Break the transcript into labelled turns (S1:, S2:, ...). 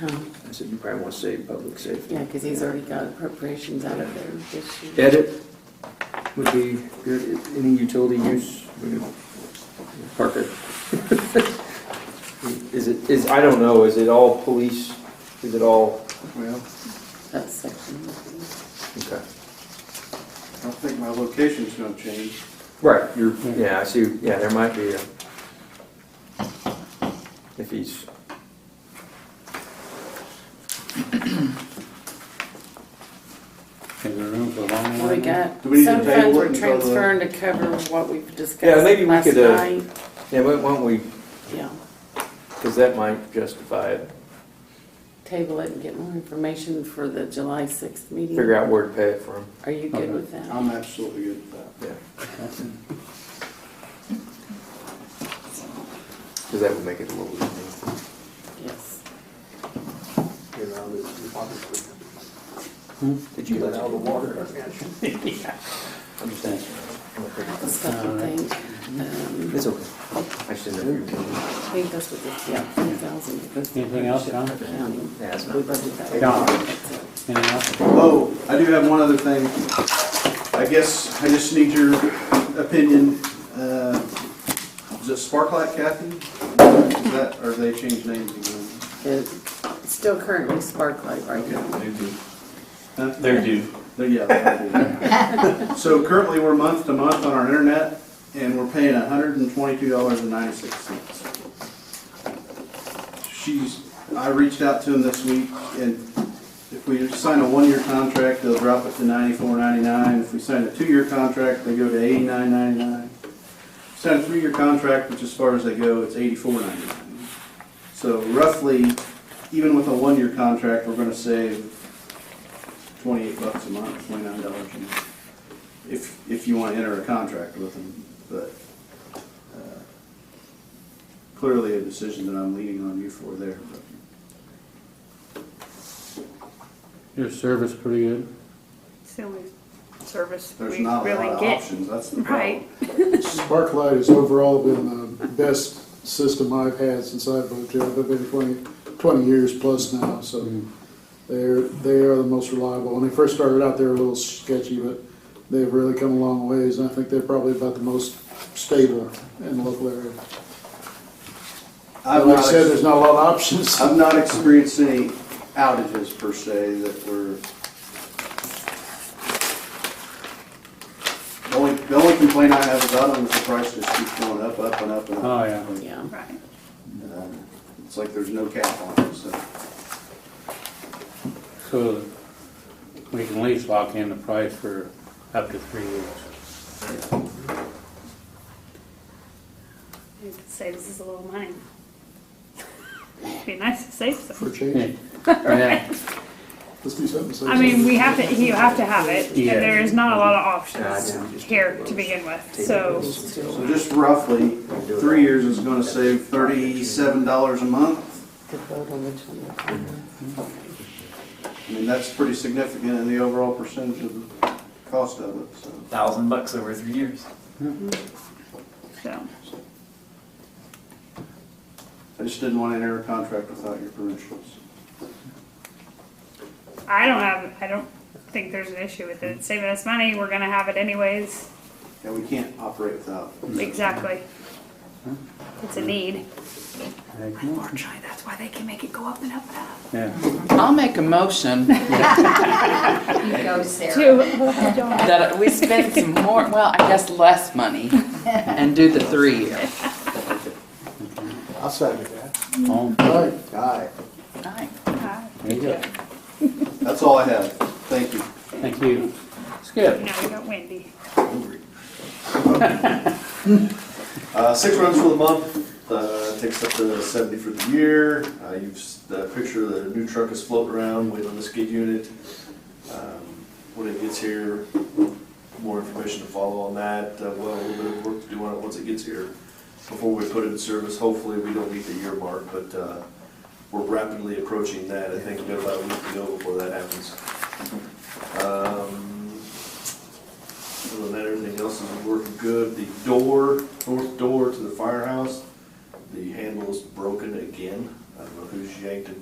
S1: I said, you probably want to say public safety.
S2: Uh-huh. Yeah, because he's already got appropriations out of there this year.
S1: Edit would be good, any utility use, we can park it. Is it, is, I don't know, is it all police, is it all?
S3: Well,
S2: That's section.
S1: Okay.
S3: I don't think my location's gonna change.
S1: Right, you're, yeah, I see, yeah, there might be a, if he's.
S4: Is there room for a long one?
S2: Well, we got,
S3: Do we need to
S2: some
S3: table
S2: funds
S3: it
S2: we're
S3: until the-
S2: transferring to cover what we've
S1: Yeah,
S2: discussed
S1: maybe we
S2: last
S1: could, uh,
S2: night.
S1: Yeah, why don't we,
S2: Yeah,
S1: because that might justify it,
S2: table it and get more information for the July sixth meeting.
S1: figure out where to pay it from,
S2: Are you good with that?
S3: I'm absolutely good with that.
S1: yeah. Because that would make it a little easier.
S2: Yes.
S1: Did you let out the water? I'm just
S2: The
S1: asking.
S2: stuff you think, um,
S1: It's okay. I shouldn't have.
S2: I think that's what the, yeah, ten thousand goes to.
S4: Anything else, John?
S2: County. We
S1: Yeah, it's not-
S2: budgeted that.
S4: John.
S2: That's it.
S4: Anything else?
S3: Oh, I do have one other thing. I guess I just need your opinion. Uh, Is it Sparklight Kathy? Is that, or they changed names again?
S2: It's still currently Sparklight right now.
S3: Huh?
S5: They're due.
S3: There- Yeah. that'd be- So currently, we're month to month on our internet, and we're paying hundred and twenty-two dollars and ninety-six cents. She's, I reached out to him this week, and if we sign a one-year contract, they'll drop it to ninety-four ninety-nine. If we sign a two-year contract, they go to eighty-nine ninety-nine. Sign a three-year contract, which as far as they go, it's eighty-four ninety-nine. So roughly, even with a one-year contract, we're gonna save twenty-eight bucks a month, twenty-nine dollars a month. If, if you want to enter a contract with them, but uh, clearly a decision that I'm leaning on you for there.
S4: Your service pretty good.
S6: It's the only service
S3: There's
S6: we
S3: not a lot
S6: really
S3: of
S6: get.
S3: options, that's the problem.
S6: Right.
S7: Sparklight has overall been the best system I've had since I've lived here. I've been 20, 20 years plus now, so they're they are the most reliable. When they first started out, they were a little sketchy, but they've really come a long ways, and I think they're probably about the most stable in the local area.
S3: I've
S7: like I
S3: not
S7: said,
S3: ex-
S7: there's not a lot of options.
S3: I've not experienced any outages per se that were. The only, the only complaint I have about them is the price just keeps going up, up and up and up.
S4: Oh, yeah.
S2: Yeah.
S6: Right.
S3: Um, It's like there's no cap on it, so.
S4: So we can at least lock in the price for up to three years.
S6: You could save us a little money. Be nice to save
S7: For
S6: some.
S7: change,
S4: Yeah.
S7: let's do something. so-
S6: I mean, we have to, you have to have it,
S4: Yeah.
S6: and there is not a lot of
S1: Nah, I know.
S6: options here to begin with, so.
S2: Still,
S3: So just roughly, three years is gonna save thirty-seven dollars a month.
S2: could vote on which one. we're going with.
S3: I mean, that's pretty significant in the overall percentage of the cost of it, so.
S5: Thousand bucks over three years.
S6: So,
S3: I just didn't want to enter a contract without your permission.
S6: I don't have, I don't think there's an issue with it. It's Saving us money, we're gonna have it anyways.
S3: And we can't operate without.
S6: Exactly. It's a need.
S4: Heck,
S6: Unfortunately, that's why they can make it go up and up and up.
S4: Yeah.
S8: I'll make a motion
S6: To,
S8: that we spend some more, well, I guess less money and do the three year.
S3: I'll second that.
S4: Oh,
S7: All right.
S3: Aye.
S4: There you go.
S3: That's all I have. Thank you.
S4: Thank you. Skip.
S6: now we got Wendy.
S9: Uh, six runs for the month, uh, takes up to seventy for the year. Uh, you've, s- the picture of the new truck is floating around, waiting on the skid unit. Um, When it gets here, more information to follow on that, Uh, well, a little bit of work to do on it once it gets here. Before we put it in service, hopefully we don't meet the year mark, but, uh, we're rapidly approaching that. I think we have about a week to go before that happens. Um, other than that, everything else is working good. The door, north door to the firehouse, the handle is broken again. I don't know who's yanked it